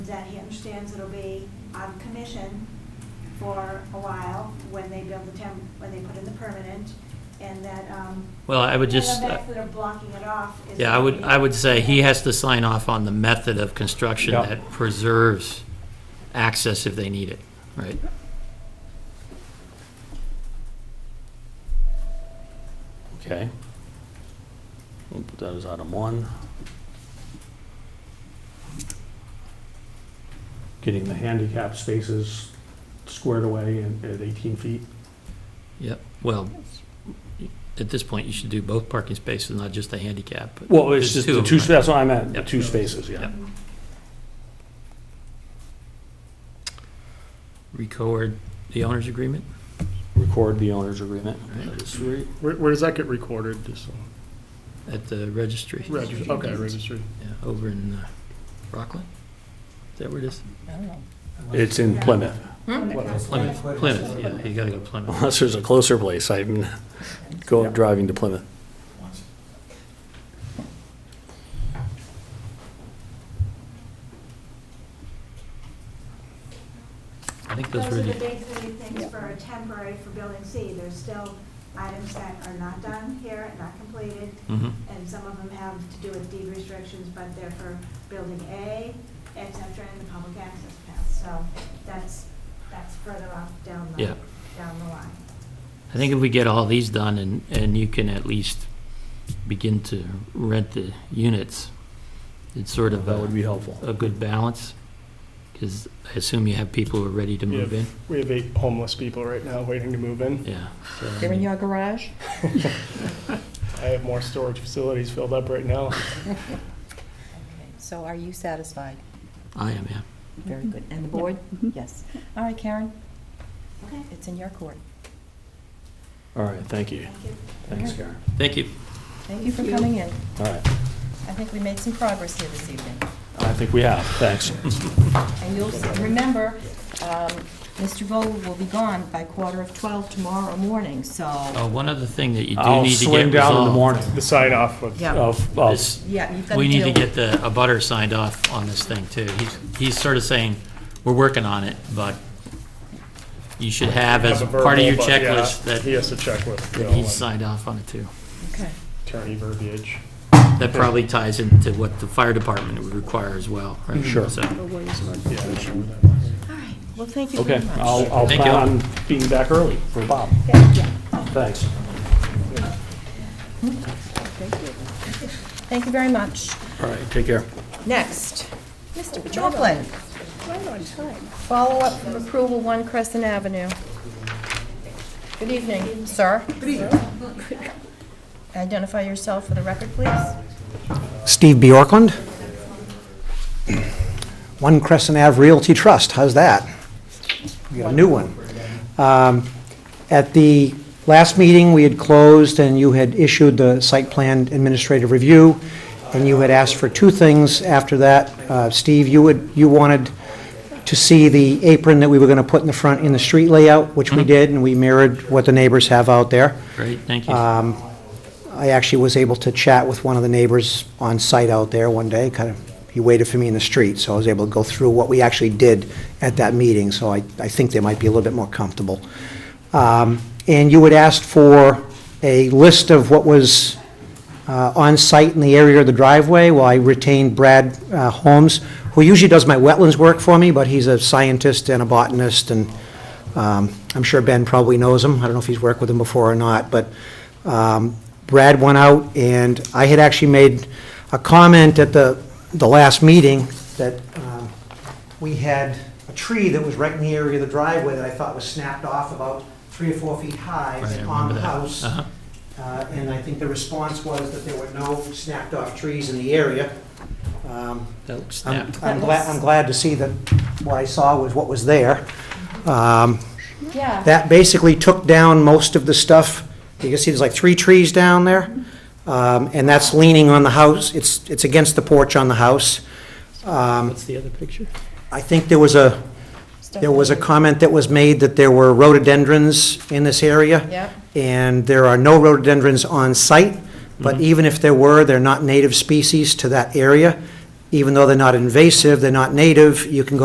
that he understands it'll be on commission for a while when they build the temp, when they put in the permanent, and that, um. Well, I would and the just, uh, fact that they're blocking it off is. yeah, I would, I would say he has to sign off on the method of construction Yeah. that preserves access if they need it, right? Okay. We'll put that as item one. Getting the handicap spaces squared away and at 18 feet. Yep, well, at this point, you should do both parking spaces, not just the handicap. but Well, there's it's just two the of two, them, sp- right? that's what I meant, the Yep. two spaces, yeah. Yep. Record the owner's agreement? Record the owner's agreement. Right. That is three. Where, where does that get recorded, just so? At the registry, yeah, Registry, okay, registry. over in uh, Rockland? Is that where it is? It's in Plymouth, Plymouth, Plymouth, yeah, you gotta go Plymouth. unless there's a closer place, I'm going, driving to Plymouth. I think Those those are were the the, big three things for a temporary for building C. There's still items that are not done here and not completed, Mhm. and some of them have to do with deed restrictions, but they're for building A, et cetera, and the public access path. So that's, that's further off down the, Yeah. down the line. I think if we get all these done and, and you can at least begin to rent the units, it's sort of uh, That would a, be helpful. a good balance, because I assume you have people who are ready to We move have- in, We have eight homeless people right now waiting to move in. yeah. so, I They're in mean, your garage? I have more storage facilities filled up right now. So are you satisfied? I am, yeah. Very good. And the board? Yes. All right, Karen, Okay, it's in your court. All right, thank you. thank you. Thanks, Karen. Thank you. Thank you for coming in. All right, I think we made some progress here this evening. I think we have, thanks. And you'll, s- remember, um, Mr. Vogel will be gone by quarter of 12 tomorrow morning, so, Uh, one other thing that you do I'll need to get swing down in the resolved morning. The sign off of, yeah, Of, of is yeah, you've got to deal. we need to get the, a butter signed off on this thing too. He's, he's sort of saying, we're working on it, but you should have as Have a part of your verbal, but yeah, checklist that He has to check with Bill that he's and signed off on it too. Okay. attorney verbiage. That probably ties into what the fire department would require as well, right? Sure. So, All right, well, thank you very Okay, much. I'll, I'll Thank plan you. on being back early for Bob. Thanks. Thank you very much. All right, take care. Next, Mr. Joplin. Right on time. Follow-up from approval, One Crescent Avenue. Good evening, sir. Good evening. Identify yourself for the record, please. Steve Bjorklund, One Crescent Ave Realty Trust, how's that? We got a new one. Um, At the last meeting, we had closed, and you had issued the site plan administrative review, and you had asked for two things after that. Uh, Steve, you would, you wanted to see the apron that we were going to put in the front in the street layout, which we did, and we mirrored what the neighbors have out there. great, thank you. I actually was able to chat with one of the neighbors on site out there one day, kind of, he waited for me in the street, so I was able to go through what we actually did at that meeting, so I, I think they might be a little bit more comfortable. Um, And you had asked for a list of what was uh, on-site in the area of the driveway, while I retained Brad uh, Holmes, who usually does my wetlands work for me, but he's a scientist and a botanist, and um, I'm sure Ben probably knows him, I don't know if he's worked with him before or not, but um, Brad went out, and I had actually made a comment at the, the last meeting that um, we had a tree that was right in the area of the driveway that I thought was snapped off about three or four feet high, Right, I on remember the that. house. Uh-huh. Uh, And I think the response was that there were no snapped-off trees in the area. Um, That looks I'm snapped. I'm glad, I'm glad to see that what I saw was what was there. Um, Yeah. That basically took down most of the stuff. You can see there's like three trees down there, Um, and that's leaning on the house. It's, it's against the porch on the house. Um, What's the other picture? I think there was a, there was a comment that was made that there were rhododendrons in this area. Yeah. And there are no Mm-hmm. rhododendrons on site, but even if there were, they're not native species to that area. even though they're not invasive, they're not native, you can go